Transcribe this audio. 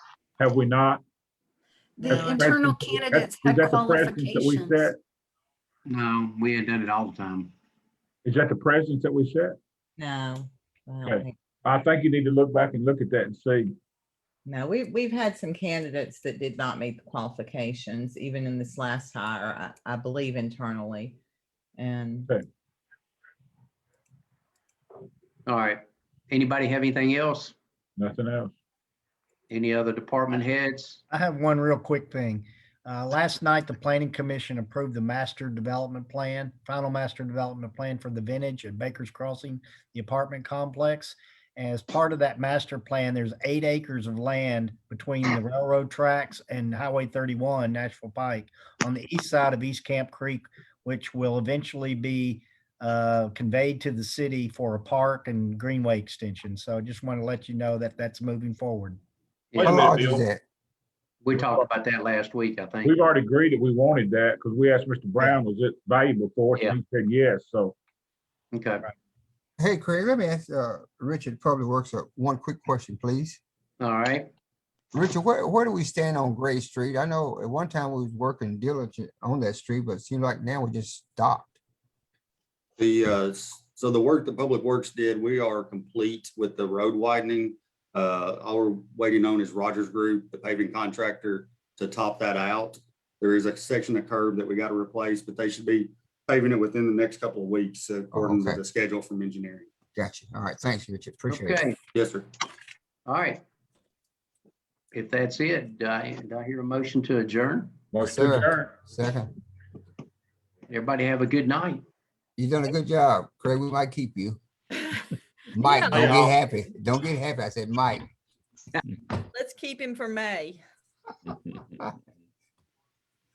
Have we not? The That's internal precedent- that's- candidates is had that the precedent that we qualifications. set? No, we had done it all the time. Is that the precedent that we set? No. I don't Okay. think- I think you need to look back and look at that and see. No, we, we've had some candidates that did not meet the qualifications, even in this last hire, I, I believe internally. And All right. Anybody have anything else? Nothing else. Any other department heads? I have one real quick thing. Uh, last night, the planning commission approved the master development plan, final master development plan for the vintage at Baker's Crossing, the apartment complex. As part of that master plan, there's eight acres of land between the railroad tracks and Highway thirty-one, Nashville Pike, on the east side of East Camp Creek, which will eventually be uh, conveyed to the city for a park and greenway extension. So I just want to let you know that that's moving forward. Wait a How minute, large Bill. is that? We talked about that last week, I think. We've already agreed that we wanted that because we asked Mr. Brown, was it valuable for us? And he said yes, so. Okay, Hey, Craig, let me ask, uh, Richard Public Works, uh, one quick question, please. all right. Richard, where, where do we stand on Gray Street? I know at one time we was working diligent on that street, but it seemed like now we just stopped. The, uh, s- so the work the Public Works did, we are complete with the road widening. Uh, All we're waiting on is Rogers Group, the paving contractor, to top that out. There is a section of curb that we got to replace, but they should be paving it within the next couple of weeks according to okay. the schedule from engineering. Gotcha. All right, thanks, Richard. Appreciate it. Okay, Yes, sir. all right. If that's it, do I, do I hear a motion to adjourn? Motion sir. adjourned. Second, Everybody have a good night. you done a good job, Craig. We might keep you. Mike, Yeah. don't get happy. Don't get happy. I said, Mike. Let's keep him for May.